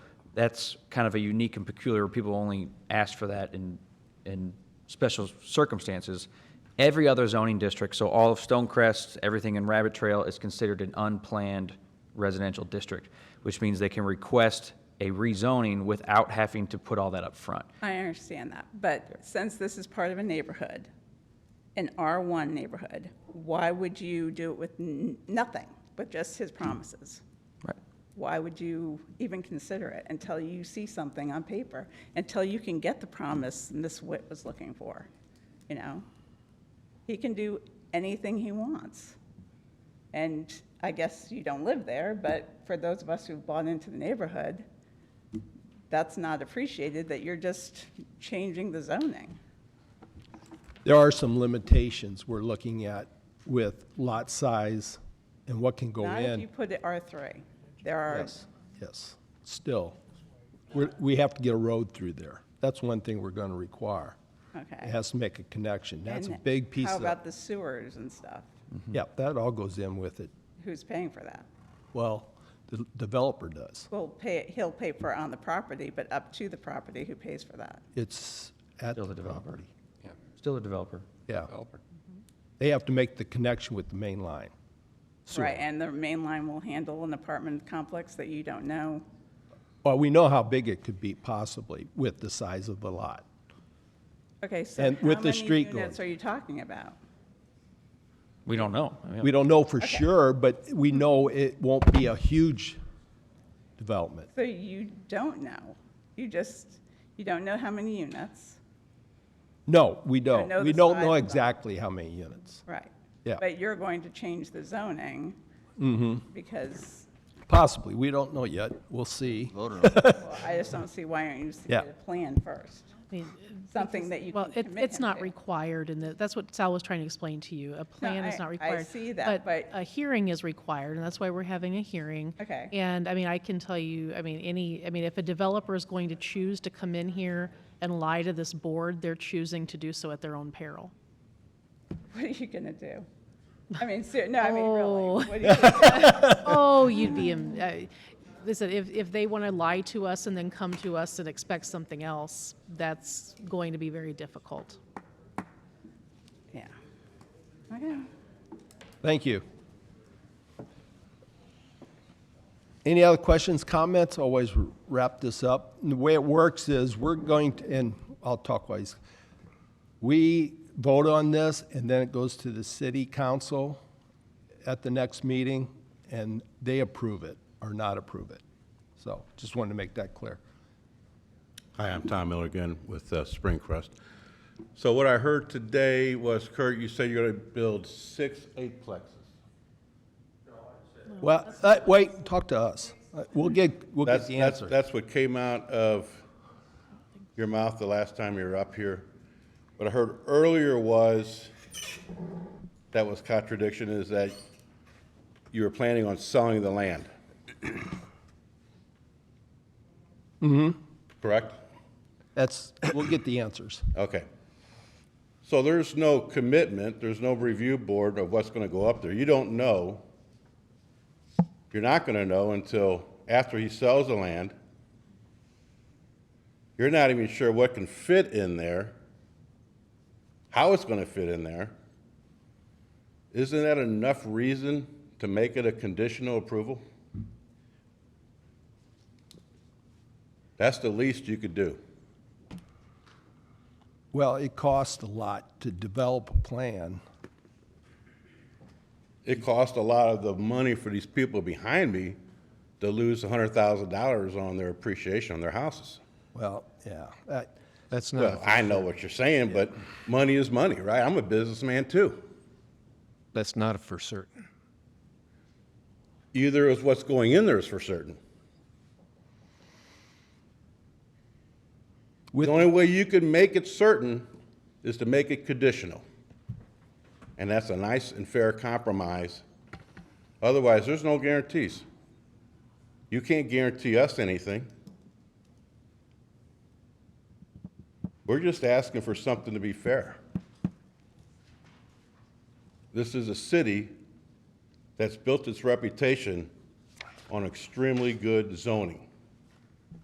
that's kind of a unique and peculiar, people only ask for that in, in special circumstances. Every other zoning district, so all of Stonecrest, everything in Rabbit Trail is considered an unplanned residential district, which means they can request a rezoning without having to put all that up front. I understand that, but since this is part of a neighborhood, an R1 neighborhood, why would you do it with n- nothing but just his promises? Right. Why would you even consider it until you see something on paper, until you can get the promise Ms. Witt was looking for, you know? He can do anything he wants. And I guess you don't live there, but for those of us who've bought into the neighborhood, that's not appreciated, that you're just changing the zoning. There are some limitations we're looking at with lot size and what can go Not if you in. put it R3. There are, Yes, yes, still. We're, we have to get a road through there. That's one thing we're gonna require. It okay. has to make a connection. That's a And big piece How of, about the sewers and stuff? yep, that all goes in with it. Who's paying for that? Well, the developer does. Well, pay, he'll pay for it on the property, but up to the property, who pays for that? It's at Still the the developer. property. Still a developer. Yeah. They have to make the connection with the main line. sewer. Right, and the main line will handle an apartment complex that you don't know? Well, we know how big it could be possibly with the size of the lot. Okay, so And how with the many street units going. are you talking about? We don't know. I mean, We don't know for sure, but we know it won't be a huge development. So you don't know. You just, you don't know how many units, No, we don't. know We the don't size know of them. exactly how many units. right? Yeah. Mm-hmm. But you're going to change the zoning. Because, Possibly, we don't know yet. We'll see. well, I just don't see why aren't you just to get Yeah. a plan first? I mean, Something that you Well, can it, commit it's him not to. required, and that- that's what Sal was trying to explain to you. A plan I- is I not required. see that, but- A hearing is required, and that's why we're having a hearing. Okay. And, I mean, I can tell you, I mean, any, I mean, if a developer is going to choose to come in here and lie to this board, they're choosing to do so at their own peril. What are you gonna do? I mean, ser- no, I mean, Oh. really. What are you gonna Oh, you'd be, in- uh, listen, if, if they want to lie to us and then come to us and expect something else, that's going to be very difficult. do? Yeah. Okay. Thank you. Any other questions, comments? Always wrap this up. And the way it works is we're going to, and I'll talk wise. We vote on this and then it goes to the city council at the next meeting and they approve it or not approve it. So just wanted to make that clear. Hi, I'm Tom Miller again with uh, Springcrest. So what I heard today was Kurt, you said you're going to build six eightplexes. Well, uh, wait, talk to us. Uh, We'll get, we'll That's, get the that's, answer. that's what came out of your mouth the last time you were up here. What I heard earlier was, that was contradiction, is that you were planning on selling the land. Mm-hmm. Mm-hmm. Correct? That's, we'll get the answers. Okay. So there's no commitment, there's no review board of what's gonna go up there. You don't know. You're not gonna know until after he sells the land. You're not even sure what can fit in there, how it's gonna fit in there. Isn't that enough reason to make it a conditional approval? That's the least you could do. Well, it costs a lot to develop a plan. it cost a lot of the money for these people behind me to lose $100,000 on their appreciation on their houses. Well, yeah, that, That's Well, not, I know what you're saying, but money is money, right? I'm a businessman too. that's not for certain. Either is what's going in there is for certain. The With- only way you can make it certain is to make it conditional. And that's a nice and fair compromise. Otherwise, there's no guarantees. You can't guarantee us anything. We're just asking for something to be fair. This is a city that's built its reputation on extremely good zoning.